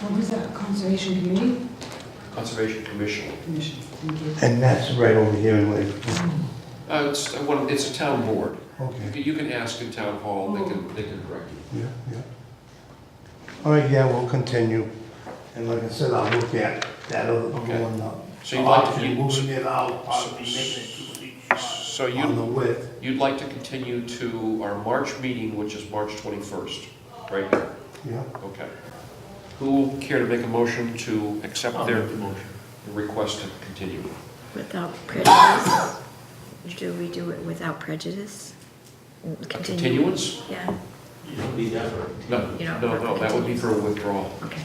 What was that, Conservation Committee? Conservation Commission. Commission, thank you. And that's right over here in Lakeview. Uh, It's uh, one, it's a town board. Okay, You can ask in town hall, they can, they can direct you. yeah, yeah. All right, yeah, we'll continue. And like I said, I'll look at that other Okay. one up. So you'd like, Option, to- Moving it out, probably making it two feet you- so short on the you, width. you'd like to continue to our March meeting, which is March 21st, right? Yeah, Okay. Who will care to make a motion to accept their request to continue? Without prejudice? Do we do it without prejudice? Continue? Continuance? Yeah, You don't need that for No, You no, know, no, that would be for a withdrawal. okay.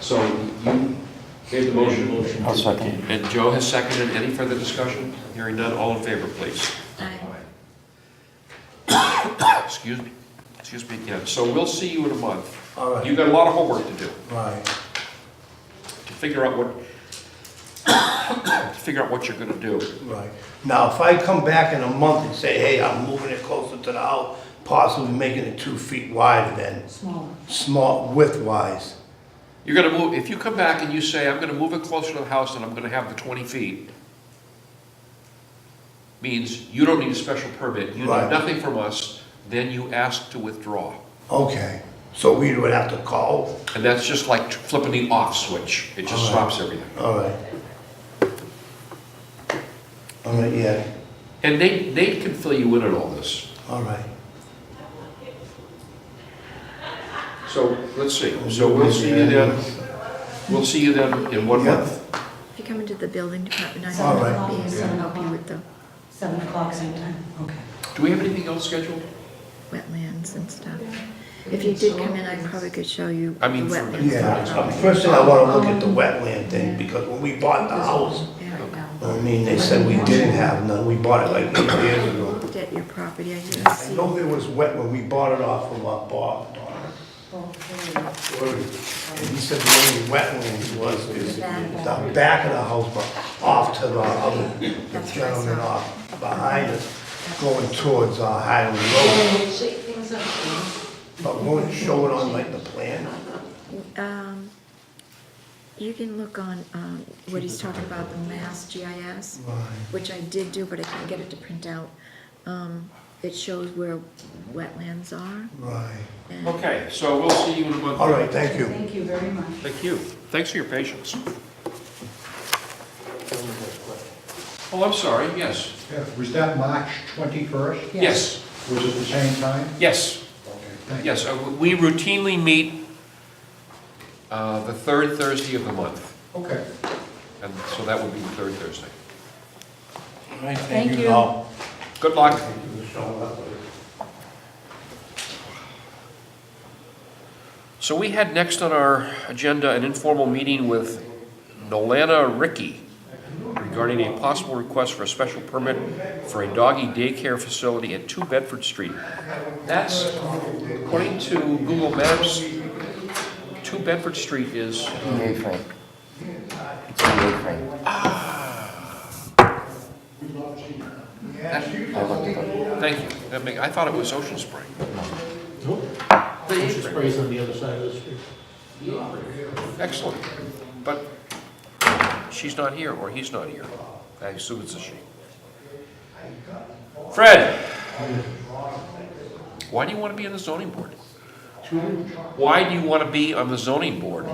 So you gave the motion, motion. I'll second. and Joe has seconded. Any further discussion? Hearing none, all in favor, please. Aye. Excuse me, excuse me again. So we'll see you in a month. all right, You've got a lot of homework to do, right. to figure out what, to figure out what you're gonna do. Right. Now, if I come back in a month and say, hey, I'm moving it closer to the house, possibly making it two feet wider than Smaller. small width-wise. You're gonna move, if you come back and you say, I'm gonna move it closer to the house and I'm gonna have the twenty feet, means you don't need a special permit, you need Right. nothing from us, then you ask to withdraw. Okay, so we would have to call? And that's just like flipping the off switch, it just All right. stops everything. All right. All right, yeah, And Nate, Nate can fill you in on all this. all right. So, let's see, so we'll see you then, we'll see you then in one Yeah. month. If you come into the building department, I Seven All right. will o'clock, be able to seven help you o'clock, with the seven o'clock same time, okay. Do we have anything else scheduled? wetlands and stuff. If you did come in, I probably could show you the I mean, from the- wetlands. Yeah, uh, first thing I wanna look at the wetland thing, because when we bought the house, Yeah. I mean, they said we didn't have none, we bought it like eight years I ago. Looked at your property, I didn't I see. know there was wet when we bought it off of uh, Bob, Donna. Well, there you go. And he said the only wetland was, is the back of the house, but off to the other, the gentleman off behind us, going towards uh, Highland Road. But won't it show it on like the plan? Um, You can look on um, what he's talking about, the Mass GIS, which I did do, but I couldn't get it to print out. Um, It shows where wetlands are. Right. and- Okay, so we'll see you in a month. All right, thank you. Thank you very much. Thank you. Thanks for your patience. Oh, I'm sorry, yes. Yeah, was that March 21st? Yes, Was it the same time? yes, Okay, thank you. yes. Uh, We routinely meet uh, the third Thursday of the month, Okay. and so that would be the third Thursday. All right, Thank you. all. Good luck. Thank you for showing up. So we had next on our agenda an informal meeting with Nolana Ricky regarding a possible request for a special permit for a doggy daycare facility at 2 Bedford Street. That's, according to Google Maps, 2 Bedford Street is, Yay Frank. It's a yay Frank. I looked it up. thank you, That make- I thought it was Ocean Spring. Nope. The Ocean Spray's on the other side of the street. Excellent, but she's not here, or he's not here. I assume it's a she. Fred? Why do you want to be on the zoning board? Why do you want to be on the zoning board?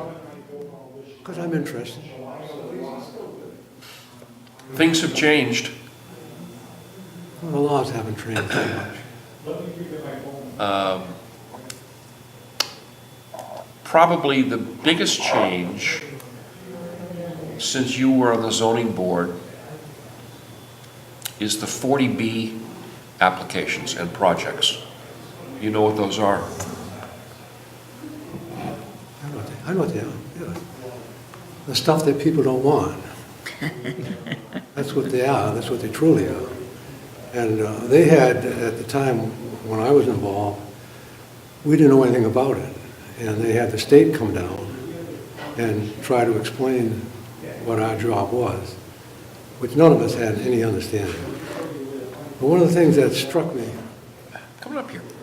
Because I'm interested. Things have changed. Well, The laws haven't changed that much. Probably the biggest change since you were on the zoning board is the 40B applications and projects. You know what those are? I know what they, I know what they are. yeah. The stuff that people don't want. That's what they are, that's what they truly are. And uh, they had, at the time when I was involved, we didn't know anything about it. And they had the state come down and try to explain what our job was, which none of us had any understanding. But one of the things that struck me Come on up here.